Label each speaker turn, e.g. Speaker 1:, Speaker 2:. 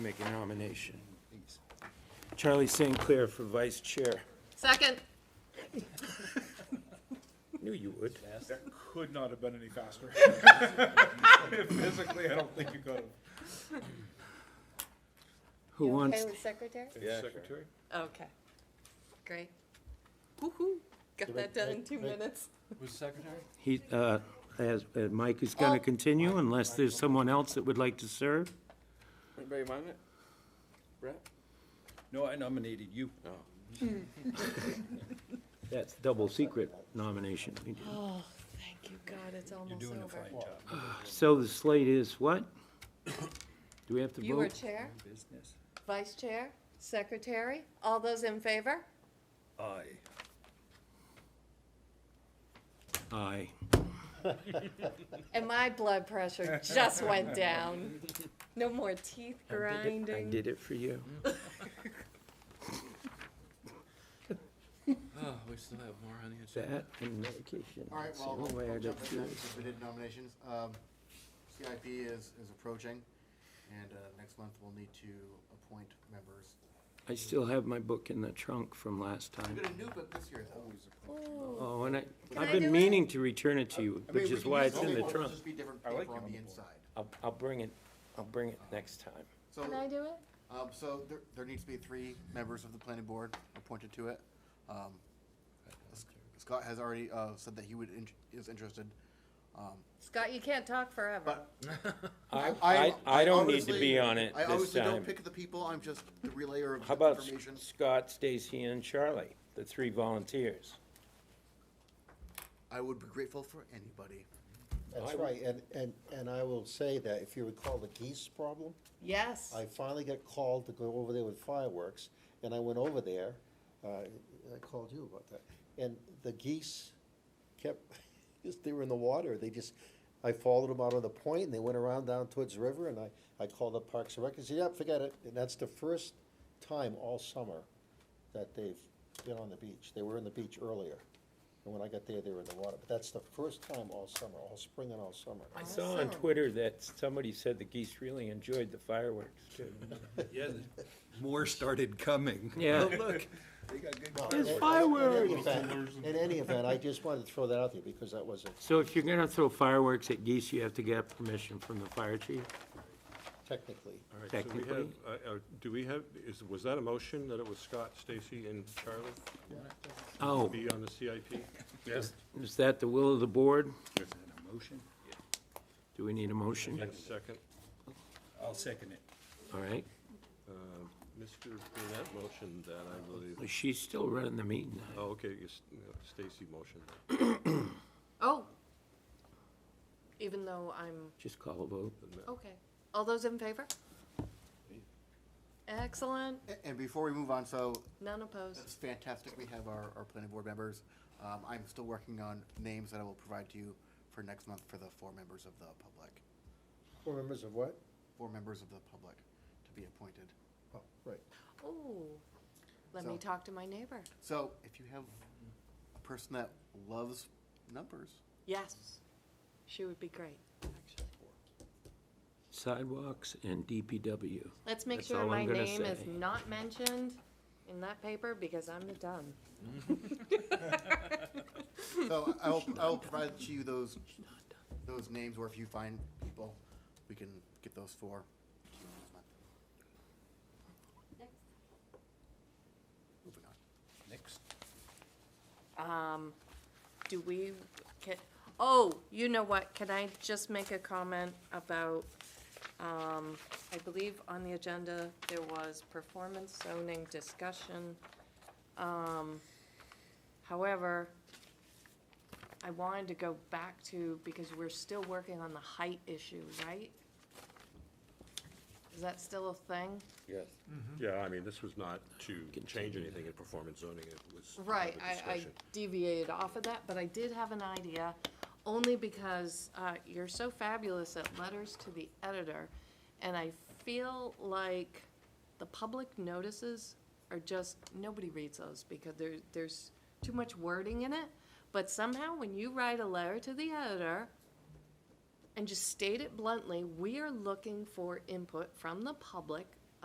Speaker 1: Make a nomination. Charlie St. Clair for vice chair.
Speaker 2: Second.
Speaker 1: Knew you would.
Speaker 3: That could not have been any faster. Physically, I don't think you could have.
Speaker 1: Who wants,
Speaker 2: Okay with secretary?
Speaker 3: Secretary?
Speaker 2: Okay, great. Woo-hoo, got that done in two minutes.
Speaker 4: Was secretary?
Speaker 1: he, uh, as, uh, Mike is gonna
Speaker 2: Oh.
Speaker 1: continue unless there's someone else that would like to serve?
Speaker 4: Anybody mind it? Brett? No, I nominated you.
Speaker 1: That's double secret nomination. we did.
Speaker 2: Oh, thank you, God, it's
Speaker 4: You're
Speaker 2: almost
Speaker 4: doing a fine
Speaker 2: over.
Speaker 4: job.
Speaker 1: So the slate is what? Do we have to
Speaker 2: You are
Speaker 1: vote?
Speaker 2: chair,
Speaker 4: Business.
Speaker 2: vice chair, secretary, all those in favor?
Speaker 4: I.
Speaker 1: Aye.
Speaker 2: And my blood pressure just went down. No more teeth
Speaker 1: I
Speaker 2: grinding.
Speaker 1: did it for you.
Speaker 4: Oh, we still have more on the agenda.
Speaker 1: That and medication.
Speaker 5: All right,
Speaker 1: That's the
Speaker 5: well,
Speaker 1: only
Speaker 5: we'll
Speaker 1: way I
Speaker 5: we'll
Speaker 1: got
Speaker 5: jump into
Speaker 1: through
Speaker 5: that
Speaker 1: this.
Speaker 5: since we did nominations. Um, CIP is, is approaching, and uh, next month we'll need to appoint members.
Speaker 1: I still have my book in the trunk from last
Speaker 5: We
Speaker 1: time.
Speaker 5: got a new book this year, though.
Speaker 2: Ooh,
Speaker 1: Oh, and I,
Speaker 2: I
Speaker 1: I've
Speaker 2: do
Speaker 1: been
Speaker 2: it?
Speaker 1: meaning to return it to you,
Speaker 5: I mean,
Speaker 1: which
Speaker 5: we
Speaker 1: is
Speaker 5: can
Speaker 1: why
Speaker 5: use
Speaker 1: it's in the
Speaker 5: book,
Speaker 1: trunk.
Speaker 5: Just be different
Speaker 3: I like
Speaker 5: paper
Speaker 3: it on
Speaker 5: on the
Speaker 3: the board.
Speaker 5: inside.
Speaker 1: I'll, I'll bring it, I'll bring it next time.
Speaker 5: So,
Speaker 2: Can I do it?
Speaker 5: um, so there, there needs to be three members of the planning board appointed to it. Um, S- Scott has already, uh, said that he would, int- is interested. Um,
Speaker 2: Scott, you can't talk forever.
Speaker 5: But
Speaker 1: I, I, I don't need to
Speaker 5: obviously-
Speaker 1: be on it
Speaker 5: I
Speaker 1: this
Speaker 5: obviously don't
Speaker 1: time.
Speaker 5: pick the people, I'm just the relayer of
Speaker 1: How about
Speaker 5: information.
Speaker 1: Scott, Stacy, and Charlie, the three volunteers?
Speaker 5: I would be grateful for anybody.
Speaker 6: That's right, and, and, and I will say that, if you recall the geese problem,
Speaker 2: Yes,
Speaker 6: I finally got called to go over there with fireworks, and I went over there, uh, I called you about that, and the geese kept, just, they were in the water, they just, I followed them out on the point, and they went around down towards the river, and I, I called up Parks and Rec, and said, yeah, forget it, and that's the first time all summer that they've been on the beach, they were in the beach earlier, and when I got there, they were in the water, but that's the first time all summer, all spring and all summer.
Speaker 1: I saw on
Speaker 2: Awesome.
Speaker 1: Twitter that somebody said the geese really enjoyed the fireworks too.
Speaker 7: More started coming.
Speaker 1: Yeah.
Speaker 7: Oh, Look,
Speaker 3: They got good.
Speaker 6: Well,
Speaker 1: There's
Speaker 6: in- in-
Speaker 1: fireworks.
Speaker 6: In any event- in any event, I just wanted to throw that out there because that was a
Speaker 1: So if you're gonna throw fireworks at geese, you have to get permission from the fire chief,
Speaker 6: technically.
Speaker 8: All right, so we
Speaker 1: technically.
Speaker 8: have, uh, uh, do we have, is, was that a motion that it was Scott, Stacy, and Charlie to
Speaker 1: Oh,
Speaker 8: be on the CIP?
Speaker 3: Yes.
Speaker 1: is that the will of the board?
Speaker 4: Is that a motion?
Speaker 1: Do we need a motion?
Speaker 8: And second,
Speaker 4: I'll second it.
Speaker 1: All right.
Speaker 8: um, Mr. Burnett motioned that, I believe.
Speaker 1: She's still running the meeting.
Speaker 8: Oh, okay, you s- no, Stacy motioned.
Speaker 2: oh. Even though I'm
Speaker 1: Just call a vote.
Speaker 2: Okay, all those in favor? Excellent,
Speaker 5: A- And before we move on, so
Speaker 2: none opposed.
Speaker 5: it's fantastic, we have our, our planning board members. Um, I'm still working on names that I will provide to you for next month for the four members of the public,
Speaker 6: Four members of what?
Speaker 5: four members of the public to be appointed.
Speaker 6: Oh, right.
Speaker 2: Ooh, let me
Speaker 5: So-
Speaker 2: talk to my neighbor.
Speaker 5: So if you have a person that loves numbers,
Speaker 2: Yes, she would be great, actually.
Speaker 1: Sidewalks and DPW.
Speaker 2: Let's make
Speaker 1: That's
Speaker 2: sure
Speaker 1: all
Speaker 2: my
Speaker 1: I'm gonna
Speaker 2: name is
Speaker 1: say.
Speaker 2: not mentioned in that paper because I'm done.
Speaker 5: so I will, I will provide to you those, those names, or if you find people, we can get those four. to you next month. Moving on.
Speaker 4: Next.
Speaker 2: Um, do we, can, oh, you know what, can I just make a comment about, um, I believe on the agenda, there was performance zoning discussion. Um, however, I wanted to go back to, because we're still working on the height issue, right? Is that still a thing?
Speaker 8: Yes. Yeah, I mean, this was not to change anything in performance zoning, it was. to have
Speaker 2: Right,
Speaker 8: a
Speaker 2: I, I
Speaker 8: discussion.
Speaker 2: deviated off of that, but I did have an idea, only because, uh, you're so fabulous at letters to the editor, and I feel like the public notices are just, nobody reads those, because there, there's too much wording in it, but somehow, when you write a letter to the editor, and just state it bluntly, we are looking for input from the public